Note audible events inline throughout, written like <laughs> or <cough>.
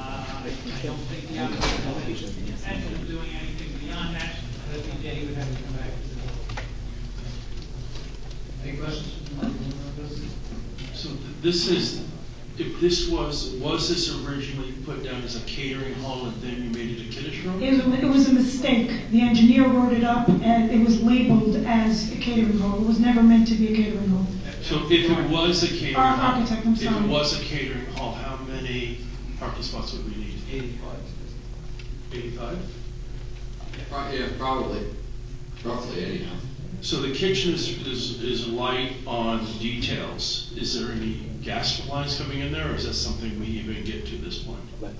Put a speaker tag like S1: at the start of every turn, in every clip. S1: I don't think the applicant is doing anything beyond that, I think Danny would have to come back to the board.
S2: Any questions?
S3: So th- this is, if this was, was this originally put down as a catering hall and then you made it a kiddish room?
S4: It was, it was a mistake. The engineer wrote it up and it was labeled as a catering hall. It was never meant to be a catering hall.
S3: So if it was a catering.
S4: Or
S3: hall,
S4: architect, I'm
S3: If
S4: sorry.
S3: it was a catering hall, how many parking spots would we need?
S2: Eighty-five.
S3: Eighty-five?
S5: Pro- Yeah, probably, roughly anyhow.
S3: So the kitchen is, is, is light on details. Is there any gas lines coming in there or is that something we even get to this point?
S1: Well,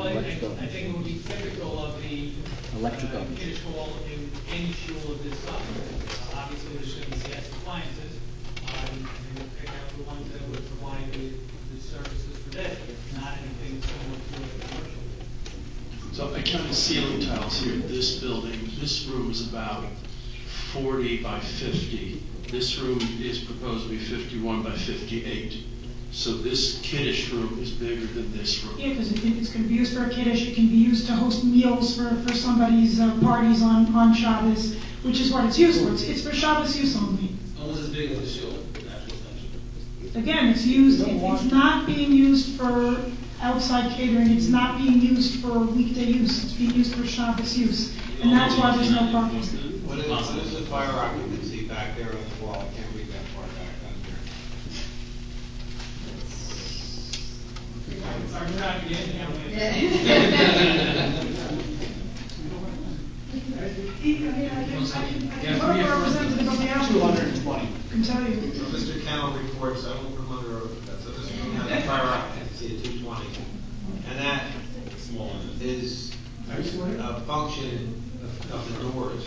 S1: I think, I think it would be typical of the. uh,
S6: Electrical.
S1: Kiddish hall in any shul of this size. Uh, Obviously, there's going to be gas appliances, uh, and we'll pick out the ones that would provide the, the services for this, not anything similar to a commercial.
S3: So I counted ceiling tiles here, this building, this room is about forty by fifty. This room is proposed to be fifty-one by fifty-eight. So this kiddish room is bigger than this room.
S4: Yeah, because it, it's gonna be used for a kiddish, it can be used to host meals for, for somebody's uh, parties on, on Shabbos, which is what it's used for. It's, it's for Shabbos use only.
S2: Almost as big as the show, that's what I'm saying.
S4: Again, it's used, it- it's not being used for outside catering, it's not being used for weekday use, it's being used for Shabbos use. And that's why there's no parking.
S7: What is, what is the fire occupancy back there on the wall? I can't read that far back on here.
S1: Sorry, we're not going to get down with it.
S4: Yes, we have. Representative of the applicant. Two hundred and twenty. Can tell you.
S7: So Mr. Cannell reports, I won't come under oath, that's a, Mr. Cannell, fire occupancy at two twenty. And that is a function of, of the doors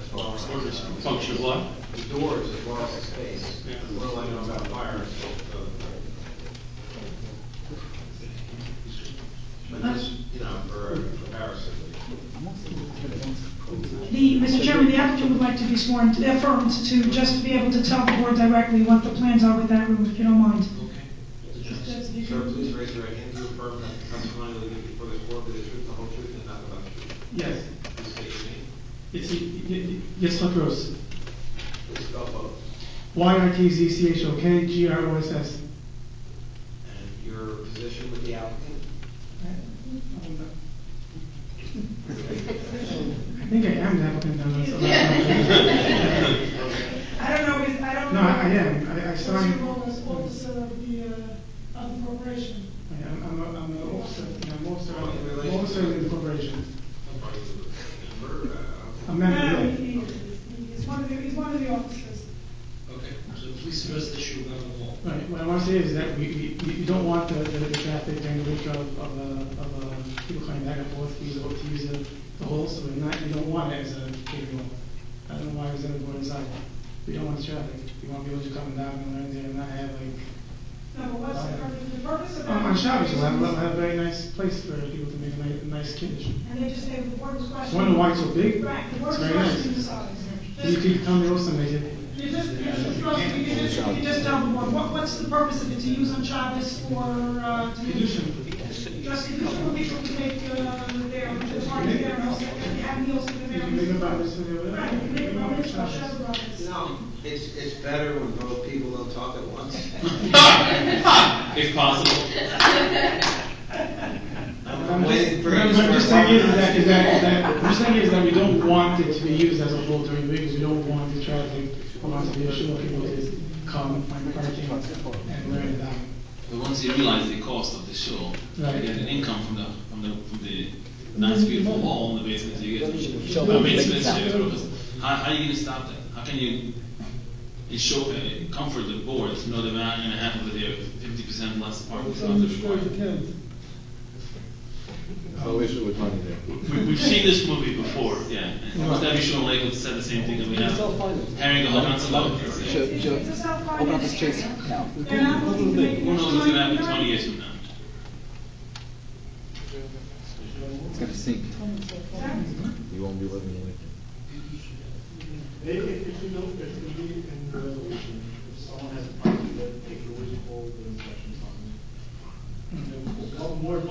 S7: as well. as-
S3: Function of what?
S7: The doors as well as the space. What do I know about fire? But this, you know, for comparison.
S4: The, Mr. Chairman, the applicant would like to be sworn, affirmed to, just to be able to tell the board directly what the plans are with that room, if you don't mind.
S8: <laughs>
S7: Sir, please raise your right hand to affirm that the testimony will give before this board will be the truth, the whole truth, and nothing but the truth.
S8: Yes,
S7: Please state your name.
S8: it's, yes, Dr. Rose.
S7: Please spell both.
S8: Y I T Z C H O K G R O S S.
S7: And your position with the applicant?
S8: I think I am the applicant now. that's all. <laughs>
S4: I don't know, is- I don't
S8: No,
S4: know.
S8: I I am, I, I
S4: What's
S8: signed.
S4: your role as officer of the, uh, of the corporation?
S8: I am, I'm a, I'm an officer, I'm an officer,
S7: Oh, in
S8: I'm
S7: relation-
S8: officer in the corporation.
S7: Are you a member?
S8: A
S4: No,
S7: Uh,
S8: member,
S4: no,
S8: yeah.
S4: he, he is, he's one of the, he's one of the officers.
S2: Okay, so please address the issue about the wall.
S8: Right, what I want to say is that we, we, we don't want the, the the traffic during the winter of, of, uh, of, uh, people coming back and forth to use, the- to use the, uh, the hole, so we're not, we don't want it as a catering hall. I don't know why it was in the board inside. We don't want traffic. We want people to come down and learn there and not have like,
S4: No, but what's the purpose, the purpose of that?
S8: on on Shabbos, we'll have, we'll have a very nice place for people to make a nice, nice kiddush.
S4: And they just say, the board was questioning.
S8: Wonder why it's so big?
S4: Right, the board
S8: It's
S4: was
S8: very nice.
S4: questioning the size.
S8: You could come there also make it.
S4: You just, you just, you just- you just, you just tell the board, what, what's the purpose of it, to use on Shabbos for, uh, to Just, you just want people to make, uh, their, the party there, and also, and have meals for the
S8: You can make a
S4: families.
S8: breakfast and everything.
S4: Right, you can make a breakfast, or share breakfast.
S7: No, it's, it's better when both people don't talk at once.
S3: If possible.
S7: I'm waiting for.
S8: What I'm just saying is that, is that, is that, what I'm saying is that we don't want it to be used as a whole during the week, because we don't want the traffic, we want to be sure people is come, find parking, and learn that.
S9: But once you realize the cost of the show,
S8: Right.
S9: you get an income from the, from the, from the nice beautiful wall in the basement, you get.
S6: Show
S9: I mean,
S6: them
S9: it's-
S6: big
S9: it's- it's-
S6: time.
S9: How, how are you gonna stop that? How can you, it show, uh, comfort the board, to know the man and a half over there, fifty percent less parking is not required?
S5: No issue with money there.
S3: We, we've seen this movie before.
S9: Yeah, and almost every show in Lakewood said the same thing that we have.
S6: Self-funded.
S9: Herring the whole council over.
S6: Show,
S9: Who
S6: show,
S4: It's a self-funded
S6: open up this chase.
S4: area.
S6: Now.
S4: They're not looking to make.
S9: knows what's gonna happen twenty years from now?
S6: It's gonna sink.
S4: Exactly.
S6: You won't be living in it.
S10: Maybe if if you don't, if we leave it in the resolution, if someone has a problem, then they can always call the inspection department. And then we'll come more